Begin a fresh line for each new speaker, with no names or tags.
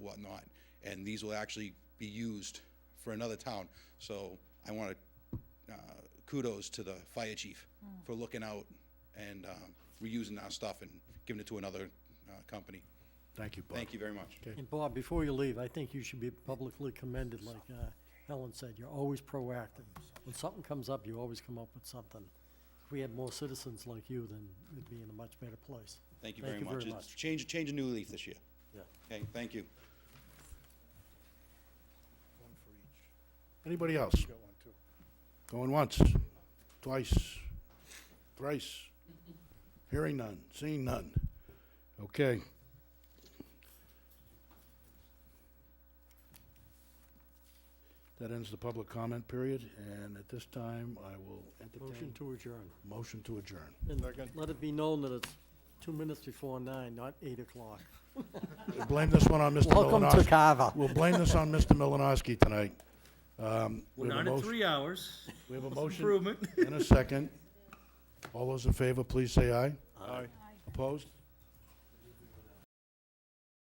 whatnot, and these will actually be used for another town. So I want to, kudos to the fire chief for looking out and um, reusing our stuff and giving it to another uh, company.
Thank you, Bob.
Thank you very much.
And Bob, before you leave, I think you should be publicly commended, like uh, Helen said, you're always proactive. When something comes up, you always come up with something. If we had more citizens like you, then we'd be in a much better place.
Thank you very much. It's Change, change a new leaf this year.
Yeah.
Okay, thank you.
Anybody else? Going once, twice, thrice. Hearing none, seeing none. Okay. That ends the public comment period, and at this time, I will
Motion
entertain
to adjourn.
motion to adjourn.
And let it be known that it's two minutes before nine, not eight o'clock.
We'll Blame this one on Mr.
Welcome to
Malinowski.
Carver.
We'll blame this on Mr. Malinowski tonight. Um, we
We're
have a
not at
motion-
three hours.
We have a motion
Improvement.
and a second. All those in favor, please say aye. Aye. Opposed?